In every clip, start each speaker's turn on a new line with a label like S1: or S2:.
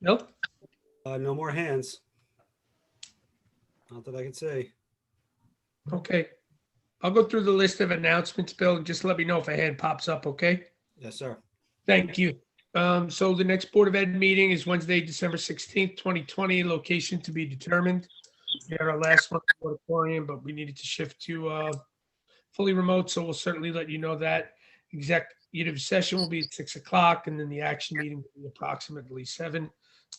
S1: Nope.
S2: Uh, no more hands. Not that I can see.
S1: Okay. I'll go through the list of announcements, Bill. and Just let me know if a hand pops up, okay?
S2: Yes, sir.
S1: Thank you. Um, so the next Board of Ed meeting is Wednesday, December sixteenth, twenty twenty, location to be determined. We had our last one, at the auditorium, but we needed to shift to, uh, fully remote, so we'll certainly let you know that. Executive session will be at six o'clock, and then the action meeting will be approximately seven.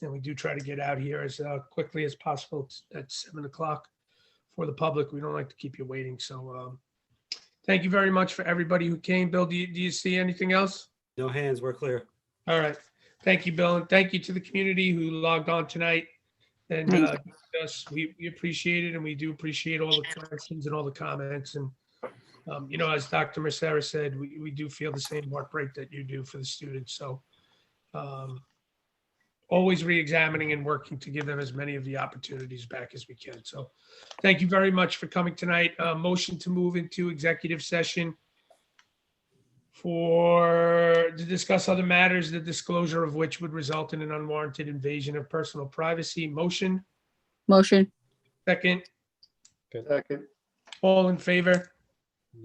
S1: And we do try to get out here as, uh, quickly as possible at seven o'clock for the public. We don't like to keep you waiting, so, um, thank you very much for everybody who came. Bill, do you, do you see anything else?
S2: No hands. We're clear.
S1: All right. Thank you, Bill, and thank you to the community who logged on tonight. And
S3: Thank
S1: uh, us, we, we appreciate it, and we do appreciate all the questions and all the comments. And, um, you know, as Dr. Mercera said, we, we do feel the same heartbreak that you do for the students, so. um, Always reexamining and working to give them as many of the opportunities back as we can. So thank you very much for coming tonight. Uh, Motion to move into executive session for, to discuss other matters, the disclosure of which would result in an unwarranted invasion of personal privacy. Motion,
S3: Motion,
S1: second,
S4: Second.
S1: all in favor?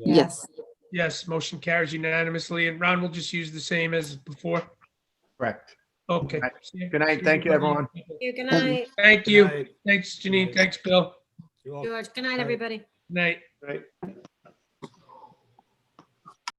S3: yes.
S1: Yes, motion carries unanimously, and Ron will just use the same as before.
S4: Correct.
S1: Okay.
S4: Good night. Thank you, everyone.
S5: You, good
S3: Thank you.
S5: night,
S1: Thank
S2: Good
S1: you.
S2: night.
S1: Thanks, Janine. Thanks, Bill.
S2: You all
S5: George. Good night, everybody.
S1: Night.
S4: Right.